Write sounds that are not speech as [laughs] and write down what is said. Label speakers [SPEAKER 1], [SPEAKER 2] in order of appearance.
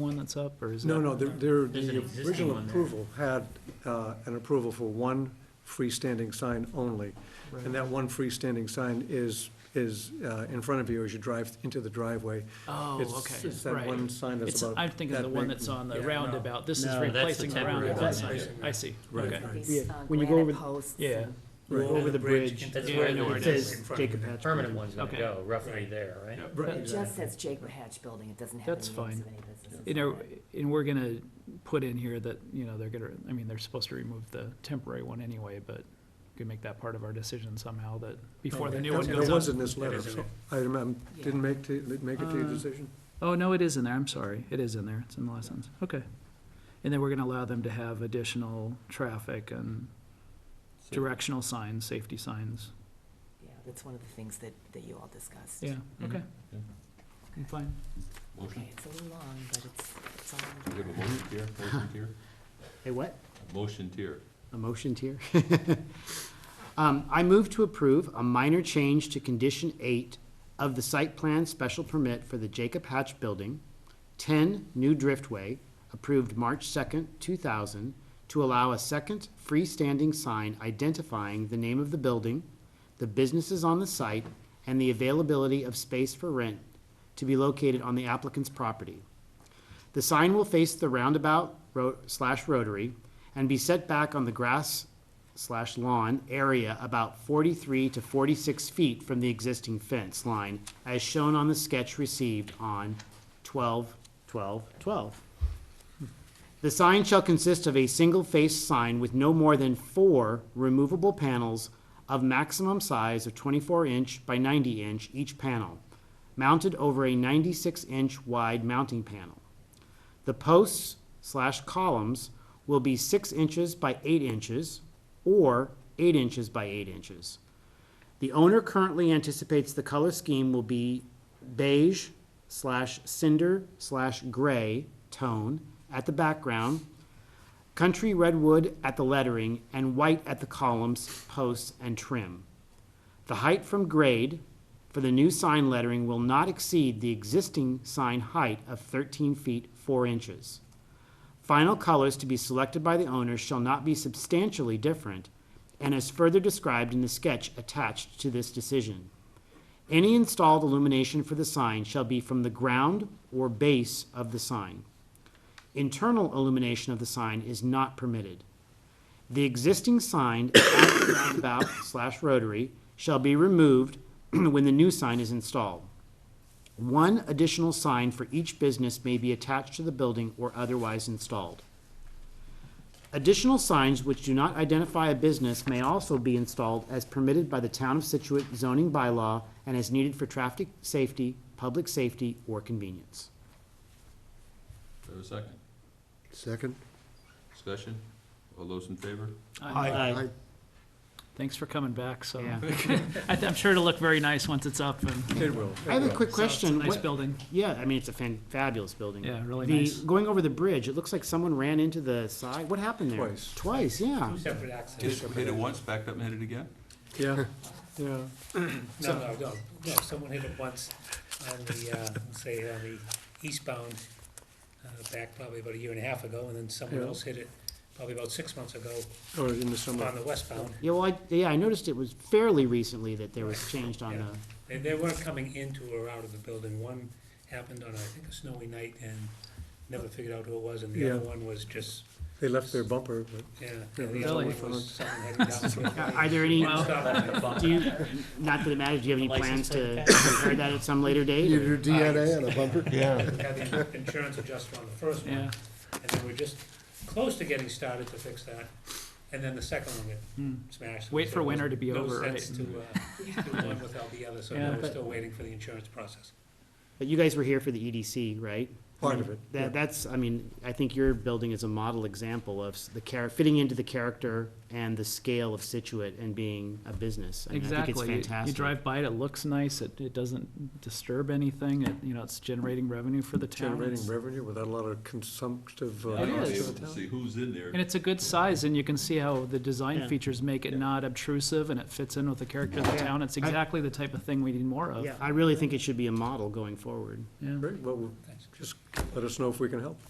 [SPEAKER 1] one that's up, or is that?
[SPEAKER 2] No, no, they're- they're,
[SPEAKER 3] There's an
[SPEAKER 2] the
[SPEAKER 3] existing
[SPEAKER 2] original
[SPEAKER 3] one there.
[SPEAKER 2] approval had uh, an approval for one freestanding sign only. And that one freestanding sign is, is uh, in front of you as you drive into the driveway.
[SPEAKER 1] Oh,
[SPEAKER 2] It's-
[SPEAKER 1] okay,
[SPEAKER 2] It's that one
[SPEAKER 1] right.
[SPEAKER 2] sign that's
[SPEAKER 1] It's,
[SPEAKER 2] about.
[SPEAKER 1] I'm thinking of
[SPEAKER 2] that
[SPEAKER 1] the one
[SPEAKER 2] big.
[SPEAKER 1] that's on the
[SPEAKER 4] Yeah, no.
[SPEAKER 1] roundabout, this is
[SPEAKER 4] No,
[SPEAKER 3] that's the
[SPEAKER 1] replacing the
[SPEAKER 3] temporary
[SPEAKER 1] roundabout
[SPEAKER 3] one.
[SPEAKER 1] sign,
[SPEAKER 4] Yeah.
[SPEAKER 1] I see,
[SPEAKER 2] Right,
[SPEAKER 1] okay.
[SPEAKER 2] right.
[SPEAKER 5] These
[SPEAKER 6] Yeah,
[SPEAKER 5] uh,
[SPEAKER 4] when you go over
[SPEAKER 6] granite
[SPEAKER 4] the-
[SPEAKER 6] posts.
[SPEAKER 1] Yeah.
[SPEAKER 6] and-
[SPEAKER 2] Right.
[SPEAKER 4] Over the bridge.
[SPEAKER 3] That's
[SPEAKER 1] Yeah,
[SPEAKER 3] where
[SPEAKER 1] I know where
[SPEAKER 3] it
[SPEAKER 1] it
[SPEAKER 3] says
[SPEAKER 4] In front of Jacob you. Hatch.
[SPEAKER 3] permanent one's gonna
[SPEAKER 1] Okay.
[SPEAKER 3] go, roughly there, right?
[SPEAKER 2] Right,
[SPEAKER 6] It just
[SPEAKER 2] exactly.
[SPEAKER 6] says Jacob Hatch Building, it doesn't have
[SPEAKER 1] That's
[SPEAKER 6] the names of
[SPEAKER 1] fine.
[SPEAKER 6] any businesses.
[SPEAKER 1] You know,
[SPEAKER 6] on it.
[SPEAKER 1] and we're gonna put in here that, you know, they're gonna, I mean, they're supposed to remove the temporary one anyway, but we could make that part of our decision somehow, that before the new one
[SPEAKER 2] And
[SPEAKER 1] goes
[SPEAKER 2] It was
[SPEAKER 1] up.
[SPEAKER 2] in this letter, so I remember, didn't make, to- make it to your decision?
[SPEAKER 1] Oh, no, it is in there, I'm sorry, it is in there, it's in the last sentence, okay. And then we're gonna allow them to have additional traffic and directional signs, safety signs,
[SPEAKER 6] Yeah, that's one of the things that, that you all discussed.
[SPEAKER 1] yeah, okay.
[SPEAKER 7] Yeah.
[SPEAKER 1] I'm fine.
[SPEAKER 7] Motion,
[SPEAKER 6] Okay, it's a little long, but it's, it's all.
[SPEAKER 7] we have a motion tier, motion tier,
[SPEAKER 4] Hey, what?
[SPEAKER 7] motion tier.
[SPEAKER 4] A motion tier? [laughs] Um, I move to approve a minor change to condition eight of the site plan special permit for the Jacob Hatch Building, ten New Driftway, approved March second, two thousand, to allow a second freestanding sign identifying the name of the building, the businesses on the site, and the availability of space for rent to be located on the applicant's property. The sign will face the roundabout ro- slash rotary and be set back on the grass slash lawn area about forty-three to forty-six feet from the existing fence line, as shown on the sketch received on 12 12 12. The sign shall consist of a single face sign with no more than four removable panels of maximum size of twenty-four inch by ninety inch each panel, mounted over a ninety-six inch wide mounting panel. The posts slash columns will be six inches by eight inches or eight inches by eight inches. The owner currently anticipates the color scheme will be beige slash cinder slash gray tone at the background, country redwood at the lettering, and white at the columns, posts, and trim. The height from grade for the new sign lettering will not exceed the existing sign height of thirteen feet four inches. Final colors to be selected by the owner shall not be substantially different and is further described in the sketch attached to this decision. Any installed illumination for the sign shall be from the ground or base of the sign. Internal illumination of the sign is not permitted. The existing sign at the roundabout slash rotary shall be removed [clears throat] when the new sign is installed. One additional sign for each business may be attached to the building or otherwise installed. Additional signs which do not identify a business may also be installed as permitted by the Town of Situate zoning bylaw and as needed for traffic safety, public safety, or convenience.
[SPEAKER 7] Is there a second?
[SPEAKER 2] Second?
[SPEAKER 7] Discussion? All those in favor?
[SPEAKER 4] Aye.
[SPEAKER 1] Thanks for coming back, so,
[SPEAKER 4] Yeah.
[SPEAKER 1] [laughs] I th- I'm sure it'll look very nice once it's up and. so
[SPEAKER 2] It will.
[SPEAKER 4] I have a quick
[SPEAKER 1] it's a
[SPEAKER 4] question.
[SPEAKER 1] Nice
[SPEAKER 4] What-
[SPEAKER 1] building,
[SPEAKER 4] Yeah, I mean, it's a fan- fabulous building.
[SPEAKER 1] yeah, really
[SPEAKER 4] The-
[SPEAKER 1] nice.
[SPEAKER 4] Going over the bridge, it looks like someone ran into the side, what happened there?
[SPEAKER 2] Twice.
[SPEAKER 4] Twice, yeah.
[SPEAKER 3] Two separate accidents.
[SPEAKER 7] Hit hit it
[SPEAKER 3] [laughs]
[SPEAKER 7] once, backed up and hit it again?
[SPEAKER 2] Yeah, yeah.
[SPEAKER 3] No, no, no, no, someone hit it once on the, uh, say, on the eastbound, uh, back probably about a year and a half ago, and then someone
[SPEAKER 2] Yeah.
[SPEAKER 3] else hit it probably about six months ago
[SPEAKER 2] Or Oh, in the summer.
[SPEAKER 3] on the westbound.
[SPEAKER 4] Yeah, well, I, yeah, I noticed it was fairly recently that there was changed on the,
[SPEAKER 3] They, they weren't coming into or out of the building. One happened on, I think, a snowy night and never figured out who it was, and the other
[SPEAKER 2] Yeah.
[SPEAKER 3] one was just,
[SPEAKER 2] They left their bumper, but.
[SPEAKER 3] yeah.
[SPEAKER 2] Yeah,
[SPEAKER 3] and The
[SPEAKER 1] really?
[SPEAKER 3] other one was someone
[SPEAKER 4] [laughs]
[SPEAKER 3] heading down.
[SPEAKER 4] uh,
[SPEAKER 3] uh,
[SPEAKER 4] are there any,
[SPEAKER 3] One stop.
[SPEAKER 4] do you, not that it matters, do you have any plans to [laughs] compare that at some later date?
[SPEAKER 8] Your DNA on a bumper? Yeah.
[SPEAKER 3] We had the insurance adjuster on the first one.
[SPEAKER 1] Yeah,
[SPEAKER 3] And then we're just close to getting started to fix that. And then the second one
[SPEAKER 1] Hmm.
[SPEAKER 3] got smashed.
[SPEAKER 1] Wait for winter to be
[SPEAKER 3] No
[SPEAKER 1] over,
[SPEAKER 3] sense
[SPEAKER 1] right? [laughs]
[SPEAKER 3] to, uh, do one without the other, so
[SPEAKER 1] Yeah,
[SPEAKER 3] now we're
[SPEAKER 1] but-
[SPEAKER 3] still waiting for the insurance process.
[SPEAKER 4] But you guys were here for the EDC, right?
[SPEAKER 2] Part of it, yeah.
[SPEAKER 4] That, that's, I mean, I think your building is a model example of s- the char, fitting into the character and the scale of Situate and being a business. I mean, I think it's
[SPEAKER 1] exactly. You- You
[SPEAKER 4] fantastic.
[SPEAKER 1] drive by it, it looks nice, it, it doesn't disturb anything, it, you know, it's generating revenue for the town.
[SPEAKER 2] generating
[SPEAKER 1] It's-
[SPEAKER 2] revenue without a lot of consumptive. uh,
[SPEAKER 1] It
[SPEAKER 7] I'll be
[SPEAKER 1] is.
[SPEAKER 7] able to See who's in there.
[SPEAKER 1] And it's a good size, and you can see how the design
[SPEAKER 4] Yeah.
[SPEAKER 1] features make it not obtrusive, and it fits in with the character of the
[SPEAKER 4] Yeah.
[SPEAKER 1] town. It's exactly the type of thing we need more of.
[SPEAKER 4] Yeah, I really think it should be a model going forward.
[SPEAKER 1] Yeah.
[SPEAKER 2] Right, well, just let us know if we can help.